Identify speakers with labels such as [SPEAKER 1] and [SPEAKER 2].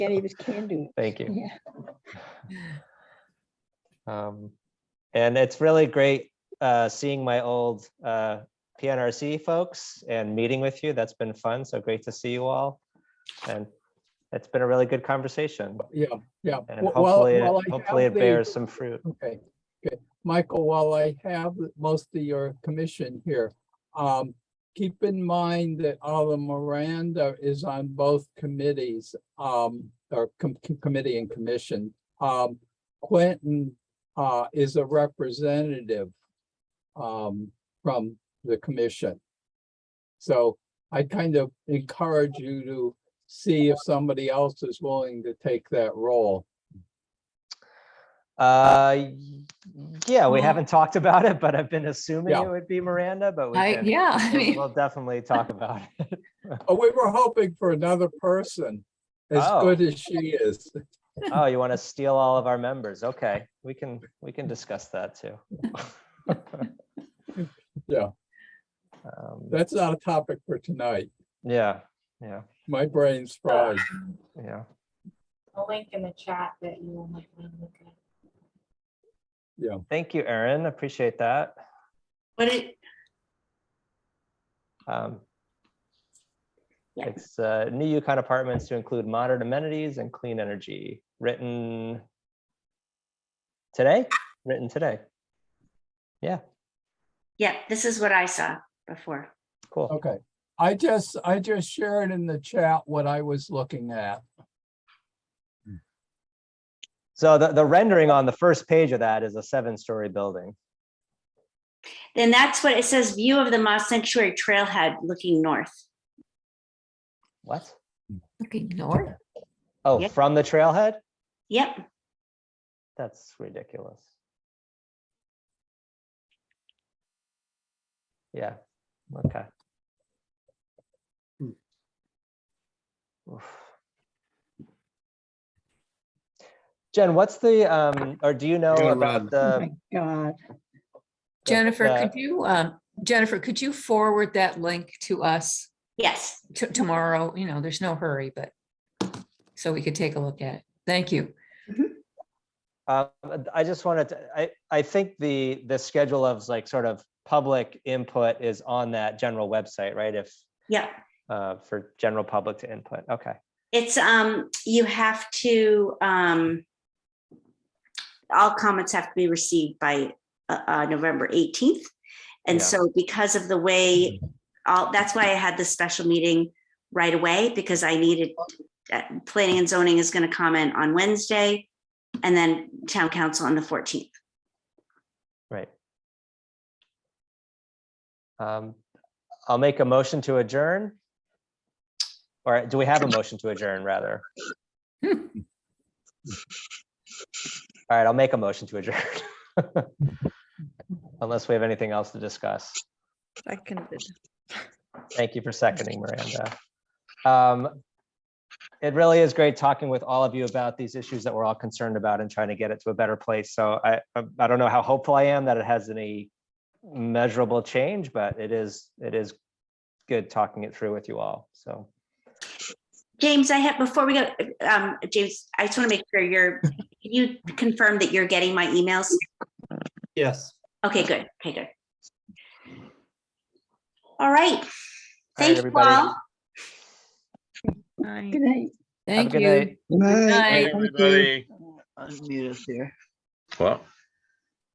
[SPEAKER 1] any of us can do.
[SPEAKER 2] Thank you.
[SPEAKER 1] Yeah,
[SPEAKER 3] Mm-hmm.
[SPEAKER 2] Um, and it's really great uh, seeing my old uh, PNRC folks and meeting with you. That's been fun. So great to see you all. And it's been a really good conversation.
[SPEAKER 3] Yeah, yeah.
[SPEAKER 2] And
[SPEAKER 3] Well,
[SPEAKER 2] hopefully, it-
[SPEAKER 3] well, I have
[SPEAKER 2] hopefully it
[SPEAKER 3] the-
[SPEAKER 2] bears some fruit.
[SPEAKER 3] Okay, good. Michael, while I have most of your commission here, um, keep in mind that Ala Miranda is on both committees, um, or com- com- committee and commission. Um, Quentin, uh, is a representative, um, from the commission. So I kind of encourage you to see if somebody else is willing to take that role.
[SPEAKER 2] Uh, y- yeah, we
[SPEAKER 4] Well-
[SPEAKER 2] haven't talked about it, but I've been assuming
[SPEAKER 3] Mm-hmm. Yeah.
[SPEAKER 2] it would be Miranda, but we
[SPEAKER 4] I,
[SPEAKER 2] can,
[SPEAKER 4] yeah, I
[SPEAKER 2] we'll-
[SPEAKER 4] mean,
[SPEAKER 2] we'll definitely talk about it.
[SPEAKER 3] Oh, we were hoping for another person as
[SPEAKER 2] Oh.
[SPEAKER 3] good as she is.
[SPEAKER 2] Oh, you want to steal all of our members? Okay, we can, we can discuss that too.
[SPEAKER 3] Yeah.
[SPEAKER 2] Um,
[SPEAKER 3] That's not a topic for tonight.
[SPEAKER 2] Yeah, yeah,
[SPEAKER 3] My brain's fried.
[SPEAKER 2] yeah.
[SPEAKER 5] a link in the chat that you will might want to look at.
[SPEAKER 2] Thank you, Erin. Appreciate that.
[SPEAKER 6] But it,
[SPEAKER 2] Um,
[SPEAKER 6] Yeah.
[SPEAKER 2] It's uh, new Yukon apartments to include modern amenities and clean energy, written today, written today.
[SPEAKER 6] yeah, this is what I saw before.
[SPEAKER 2] Cool.
[SPEAKER 3] Okay. I just, I just shared in the chat what I was looking at.
[SPEAKER 2] So the, the rendering on the first page of that is a seven-story building.
[SPEAKER 6] Then that's what it says, view of the Moss Sanctuary Trailhead looking north.
[SPEAKER 2] What?
[SPEAKER 4] looking north.
[SPEAKER 2] Oh,
[SPEAKER 6] Yeah.
[SPEAKER 2] from the trailhead?
[SPEAKER 6] Yep,
[SPEAKER 2] That's ridiculous. Yeah, okay.
[SPEAKER 7] Hmm.
[SPEAKER 2] Oof. Jen, what's the, um, or do you know
[SPEAKER 7] gonna
[SPEAKER 2] about
[SPEAKER 7] run.
[SPEAKER 1] Oh my
[SPEAKER 2] the?
[SPEAKER 1] God,
[SPEAKER 2] the-
[SPEAKER 4] Jennifer,
[SPEAKER 2] the-
[SPEAKER 4] could you, um, Jennifer, could you forward that link to us
[SPEAKER 6] yes.
[SPEAKER 4] to- tomorrow? You know, there's no hurry, but so we could take a look at it. Thank you.
[SPEAKER 2] Uh, I just wanted to, I, I think the, the schedule of like sort of public input is on that general website, right? If,
[SPEAKER 6] Yep.
[SPEAKER 2] uh, for general public to input, okay.
[SPEAKER 6] It's, um, you have to, um, all comments have to be received by, uh, uh, November 18th. And
[SPEAKER 2] Yeah.
[SPEAKER 6] so because of the way, all, that's why I had this special meeting right away because I needed, uh, planning and zoning is going to comment on Wednesday and then town council on the 14th.
[SPEAKER 2] Right. Um, I'll make a motion to adjourn. Or do we have a motion to adjourn rather? All right, I'll make a motion to adjourn. Unless we have anything else to discuss.
[SPEAKER 8] Seconded.
[SPEAKER 2] Thank you for seconding, Miranda. Um, It really is great talking with all of you about these issues that we're all concerned about and trying to get it to a better place. So I, I- I don't know how hopeful I am that it has any measurable change, but it is, it is good talking it through with you all. So
[SPEAKER 6] James, I have, before we go, um, James, I just want to make sure you're, can you confirm that you're getting my emails?
[SPEAKER 7] Yes.
[SPEAKER 6] Okay, good. Okay, good. All right. Thank you
[SPEAKER 2] everybody.
[SPEAKER 6] all.
[SPEAKER 8] Aye.
[SPEAKER 1] good night.
[SPEAKER 2] have a
[SPEAKER 4] Thank
[SPEAKER 2] good
[SPEAKER 4] you.
[SPEAKER 2] night.
[SPEAKER 4] Good night.
[SPEAKER 8] Everybody. Unmute us here.
[SPEAKER 9] Well,